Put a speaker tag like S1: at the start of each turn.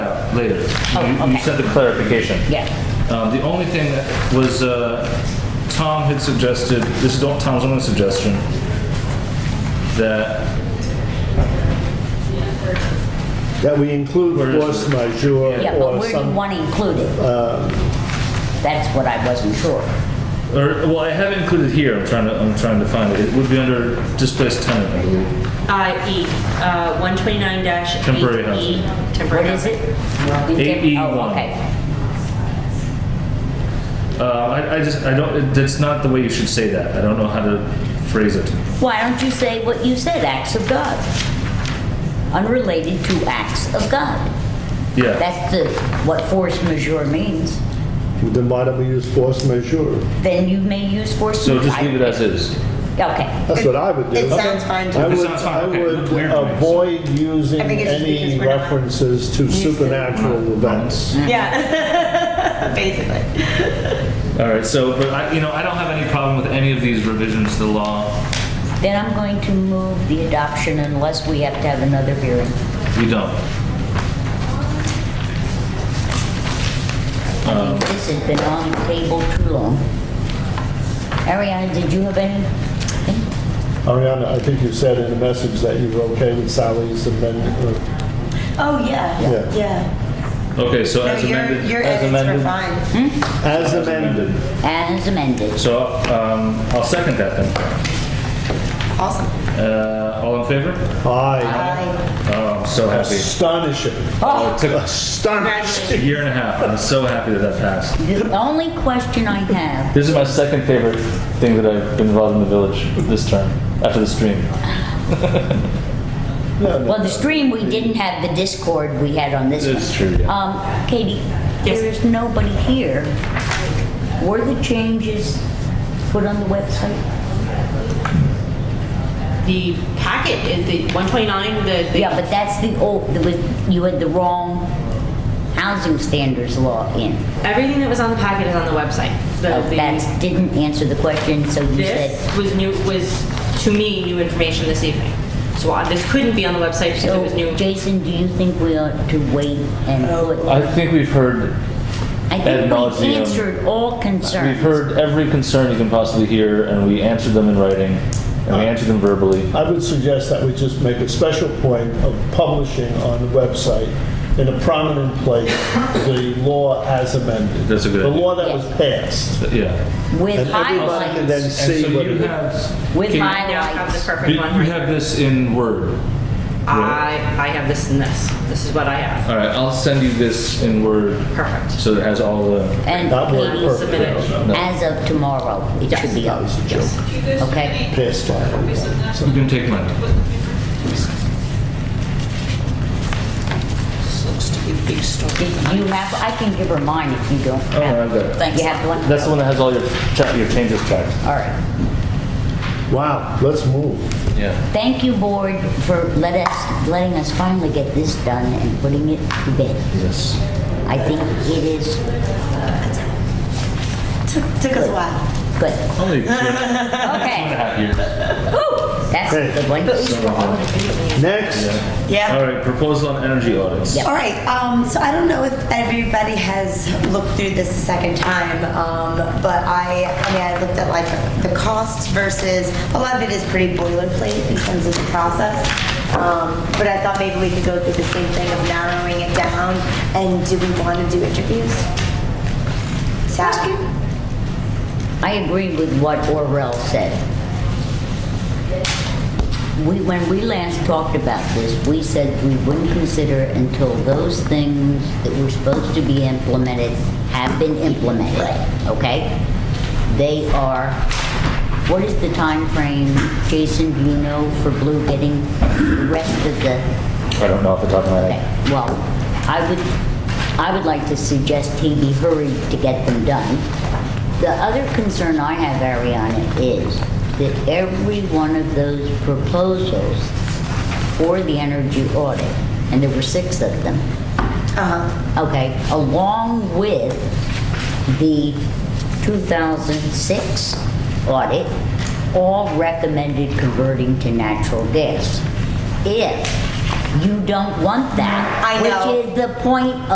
S1: later.
S2: Oh,
S1: You you
S2: okay.
S1: said the clarification.
S2: Yeah.
S1: Um, The only thing that was, uh, Tom had suggested, this is Tom's only suggestion, that
S3: That we include
S1: Where is
S3: force
S1: it? uh,
S3: majeure
S2: Yeah, but
S3: or
S2: where do you
S3: some,
S2: want to include it? That's what I wasn't sure.
S1: Or, well, I have it included here, I'm trying to, I'm trying to find it. It would be under displaced tenant, I believe.
S4: Uh, E, uh, 129 dash. E,
S1: Temporary housing.
S4: Temporary.
S2: What is it?
S4: housing.
S1: E AE1.
S2: Oh, okay.
S1: Uh, I, I just, I don't, it- that's not the way you should say that. I don't know how to phrase it.
S2: Why don't you say what you said, acts of God? Unrelated to acts of God.
S1: Yeah,
S2: That's the, what force majeure means.
S3: then why don't we use force majeure?
S2: Then you may use force.
S1: so just
S2: majeure.
S1: leave it as is.
S2: Okay.
S3: That's what I would do.
S5: It sounds fine
S3: I
S5: to me.
S1: It
S3: would,
S1: sounds fine,
S3: I
S1: okay, it
S3: would
S1: looked weird to me, so-
S3: avoid using
S5: I think it's just
S3: any
S5: because we're not
S3: references to
S5: to it.
S3: supernatural events.
S5: Yeah, basically.
S1: All right, so, but I, you know, I don't have any problem with any of these revisions to the law.
S2: Then I'm going to move the adoption unless we have to have another hearing.
S1: We don't.
S2: I mean,
S1: Um.
S2: This has been on the table too long. Ariana, did you have any?
S3: Ariana, I think you said in the message that you were okay with Sally's amendment. uh,
S5: Oh, yeah,
S3: Yeah.
S5: yeah.
S1: Okay, so
S5: No,
S1: as
S5: your,
S1: amended,
S5: your
S1: as
S5: edits were
S1: amended.
S5: fine.
S3: As amended.
S2: As amended.
S1: So, um, I'll second that then.
S5: Awesome.
S1: Uh, all in favor?
S3: Aye.
S4: Uh,
S5: Bye.
S1: Oh, I'm so happy.
S3: Astonishing.
S1: Oh, it took
S3: Astonishing.
S1: a year and a half. I'm so happy that that passed.
S2: The only question I have,
S1: This is my second favorite thing that I've been involved in the village this term, after the stream.
S2: well, the stream, we didn't have the Discord we had on this one.
S1: That's true, yeah.
S2: Um, Katie, there is nobody here. Were the changes put on the website?
S4: The packet, is the 129, the. the-
S2: Yeah, but that's the old, there was, you had the wrong housing standards law in. Uh,
S4: Everything that was on the packet is on the website. The-
S5: Oh,
S4: the-
S2: That didn't answer the question, so you said.
S4: This was new, was to me new information this evening. So uh, this couldn't be on the website because it was new. Oh.
S2: So,
S5: Oh,
S2: Jason, do you think we ought to wait and put?
S1: I think we've heard,
S2: I
S1: ad
S2: think we
S1: nauseam.
S2: answered all
S1: we've
S2: concerns.
S1: heard every concern you can possibly hear, and we answered them in writing, and we answered them verbally.
S3: I would suggest that we just make a special point of publishing on the website in a prominent place, the law as amended.
S1: That's a good
S3: The
S1: idea.
S3: law that was passed.
S1: Yeah.
S2: With
S3: And everybody can then
S2: highlights,
S3: see what it is.
S1: have.
S2: with
S4: I now have the
S2: highlights.
S4: perfect one. right here.
S1: this in Word.
S4: I, I have this and this. This is what I have.
S1: All right, I'll send you this in Word,
S4: Perfect.
S1: so it has all the.
S2: And
S3: That worked
S2: Katie,
S3: perfect.
S4: Submit it.
S2: as of tomorrow, it should be up,
S4: Yes.
S2: okay?
S3: Passed on.
S1: You can take mine.
S4: This looks to be a big
S2: Do
S4: story.
S2: You have, I can give her mine if you don't
S1: Oh, I've
S2: have.
S1: got it.
S2: You have one?
S1: That's the one that has all your, cha- your changes tracked.
S2: All right.
S3: Wow, let's move.
S1: Yeah.
S2: Thank you, board, for let us, letting us finally get this done and putting it to bed.
S1: Yes.
S2: I think it is
S5: Took, took us a while.
S2: good.
S1: Only two and a
S2: Okay,
S1: half years.
S2: that's a good one.
S3: Next,
S5: Yeah.
S1: All right, proposal on energy audits.
S2: Yeah.
S5: All right, um, so I don't know if everybody has looked through this a second time, um, but I, I mean, I looked at like the costs versus, a lot of it is pretty boilerplate in terms of the process. Um, but I thought maybe we could go through the same thing of narrowing it down and do we want to do interviews? Sal?
S2: I agree with what Orrell said. We, when we last talked about this, we said we wouldn't consider until those things that were supposed to be implemented have been implemented, okay? They are, what is the time frame, Jason, do you know, for Blue getting the rest of the
S1: I don't know off the top of my
S2: Okay,
S1: head.
S2: well, I would, I would like to suggest he be hurried to get them done. The other concern I have, Ariana, is that every one of those proposals for the energy audit, and there were six of them,
S5: Uh-huh,
S2: okay, along with the 2006 audit, all recommended converting to natural gas. If you don't want that,
S5: I know.
S2: which is the point